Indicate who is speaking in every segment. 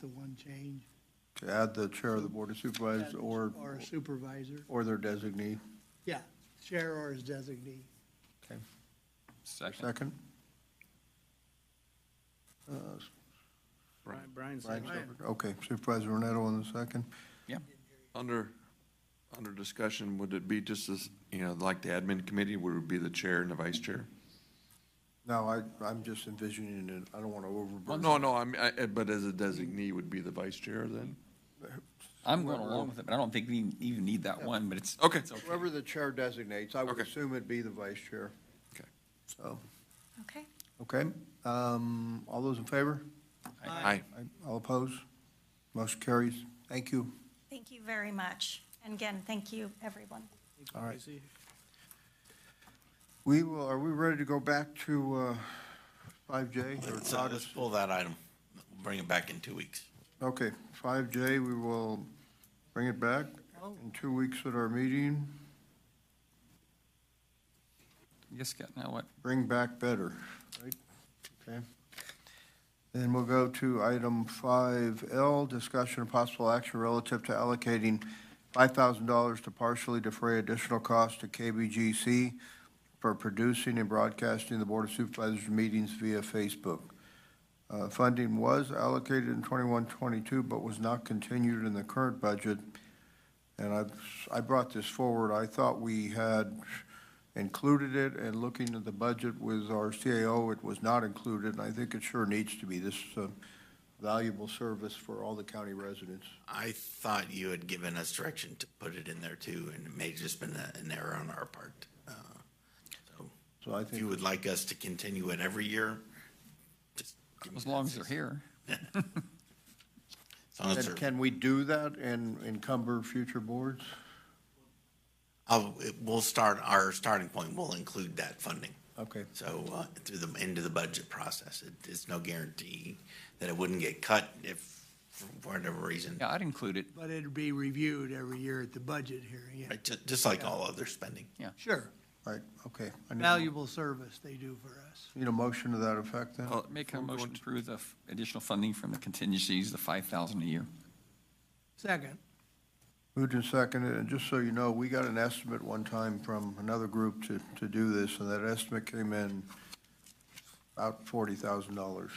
Speaker 1: the one change.
Speaker 2: To add the chair of the board of supervisors or,
Speaker 1: Or supervisor,
Speaker 2: or their designee.
Speaker 1: yeah, chair or his designee.
Speaker 2: Okay,
Speaker 3: Second.
Speaker 2: second. Uh,
Speaker 3: Brian.
Speaker 4: Brian's
Speaker 2: Brian Shepherd. Okay, Supervisor Renetto on the second.
Speaker 3: Yeah.
Speaker 5: Under, under discussion, would it be just as, you know, like the admin committee, would it be the chair and the vice chair?
Speaker 2: No, I, I'm just envisioning it, I don't want to overburden.
Speaker 5: No, no, I'm, I, but as a designee would be the vice chair then?
Speaker 3: I'm going along with it, but I don't think we even need that one, but it's.
Speaker 5: Okay.
Speaker 3: it's
Speaker 2: Whoever the chair designates, I would
Speaker 5: Okay.
Speaker 2: assume it'd be the vice chair,
Speaker 5: Okay.
Speaker 2: so,
Speaker 6: Okay.
Speaker 2: okay. Um, all those in favor?
Speaker 5: Aye.
Speaker 2: Aye. All opposed? Motion carries. Thank you.
Speaker 6: Thank you very much. And again, thank you, everyone.
Speaker 2: All right. We will, are we ready to go back to, uh, 5J or
Speaker 7: Let's, uh,
Speaker 2: Todd?
Speaker 7: let's pull that item, bring it back in two weeks.
Speaker 2: Okay, 5J, we will bring it back in two weeks at our meeting.
Speaker 3: Yes, Scott, now what?
Speaker 2: Bring back better, right? Okay. Then we'll go to item 5L, discussion of possible action relative to allocating $5,000 to partially defray additional costs to KBGC for producing and broadcasting the Board of Supervisors meetings via Facebook. Uh, Funding was allocated in 21-22, but was not continued in the current budget. And I, I brought this forward, I thought we had included it, and looking at the budget with our CAO, it was not included, and I think it sure needs to be. This is a valuable service for all the county residents.
Speaker 7: I thought you had given us direction to put it in there too, and it may have just been a- an error on our part. Uh, So
Speaker 2: So I
Speaker 7: if you
Speaker 2: think,
Speaker 7: would like us to continue it every year, just. give me
Speaker 3: As long as they're
Speaker 7: that.
Speaker 3: here.
Speaker 7: As long as
Speaker 2: And
Speaker 7: they're-
Speaker 2: can we do that and encumber future boards?
Speaker 7: I'll, it- we'll start, our starting point will include that funding.
Speaker 2: Okay,
Speaker 7: So uh, through the end of the budget process, it, it's no guarantee that it wouldn't get cut if, for whatever reason.
Speaker 3: Yeah, I'd include it.
Speaker 1: But it'd be reviewed every year at the budget hearing, yeah.
Speaker 7: Right, ju- just like all other spending.
Speaker 1: Sure,
Speaker 2: right, okay. I need-
Speaker 1: valuable service they do for us.
Speaker 2: Need a motion to that effect then?
Speaker 5: I'll-
Speaker 3: Make a
Speaker 5: Uh, we're going
Speaker 3: motion to
Speaker 5: to-
Speaker 3: approve the f- additional funding from the contingencies, the five thousand a year.
Speaker 1: Second,
Speaker 2: Moved and seconded, and just so you know, we got an estimate one time from another group to, to do this, and that estimate came in about forty thousand dollars.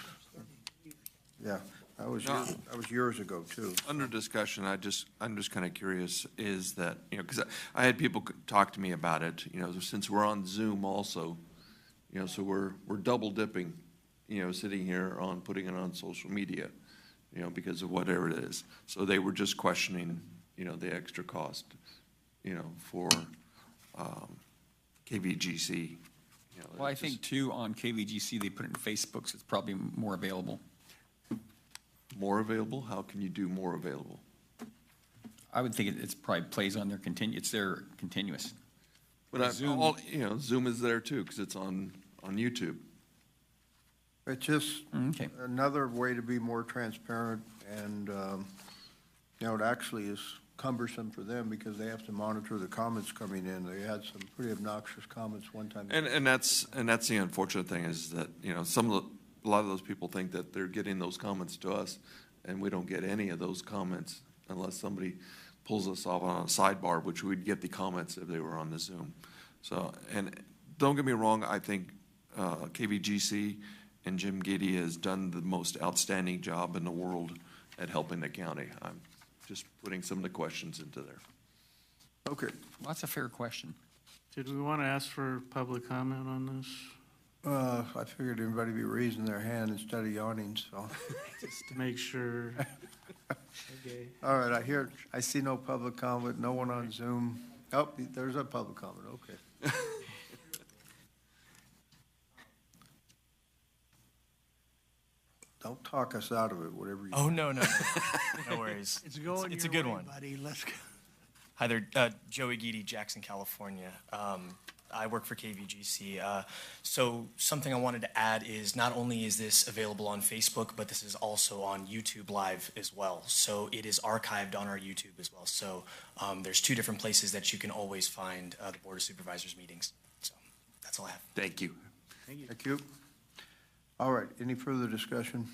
Speaker 2: Yeah, that was, years- that was years ago, too.
Speaker 5: Under discussion, I just, I'm just kind of curious, is that, you know, because I had people c- talk to me about it, you know, since we're on Zoom also, you know, so we're, we're double dipping, you know, sitting here on, putting it on social media, you know, because of whatever it is. So they were just questioning, you know, the extra cost, you know, for um, KVGC. you know,
Speaker 3: Well, I
Speaker 5: it's just
Speaker 3: think too, on KVGC, they put it in Facebook, so it's probably more available.
Speaker 5: More available, how can you do more available?
Speaker 3: I would think it- it's probably plays on their continu, it's their continuous.
Speaker 5: But I,
Speaker 3: Zoom.
Speaker 5: all, you know, Zoom is there too, because it's on, on YouTube.
Speaker 2: It's just
Speaker 3: Okay.
Speaker 2: another way to be more transparent, and, um, you know, it actually is cumbersome for them because they have to monitor the comments coming in. They had some pretty obnoxious comments one time.
Speaker 5: And, and that's, and that's the unfortunate thing is that, you know, some of the, a lot of those people think that they're getting those comments to us, and we don't get any of those comments unless somebody pulls us off on a sidebar, which we'd get the comments if they were on the Zoom. So, and don't get me wrong, I think, uh, KVGC and Jim Giddy has done the most outstanding job in the world at helping the county. I'm just putting some of the questions into there.
Speaker 2: Okay,
Speaker 3: Well, that's a fair question.
Speaker 4: Did we want to ask for public comment on this?
Speaker 2: uh, I figured everybody would be raising their hand instead of yawning, so.
Speaker 4: Just to make sure. Okay.
Speaker 2: All right, I hear, I see no public comment, no one on Zoom. Oh, there's a public comment, okay. Don't talk us out of it, whatever you.
Speaker 8: Oh no no no, no worries.
Speaker 1: it's going
Speaker 8: It's, a
Speaker 1: your
Speaker 8: good
Speaker 1: way,
Speaker 8: one.
Speaker 1: Buddy, let's go.
Speaker 8: Hi there, uh, Joey Gidi, Jackson, California. Um, I work for KVGC. Uh, so something I wanted to add is not only is this available on Facebook, but this is also on YouTube Live as well. So it is archived on our YouTube as well. So um, there's two different places that you can always find uh, the Board of Supervisors meetings. So that's all I have.
Speaker 5: Thank you.
Speaker 2: Thank you. All right, any further discussion?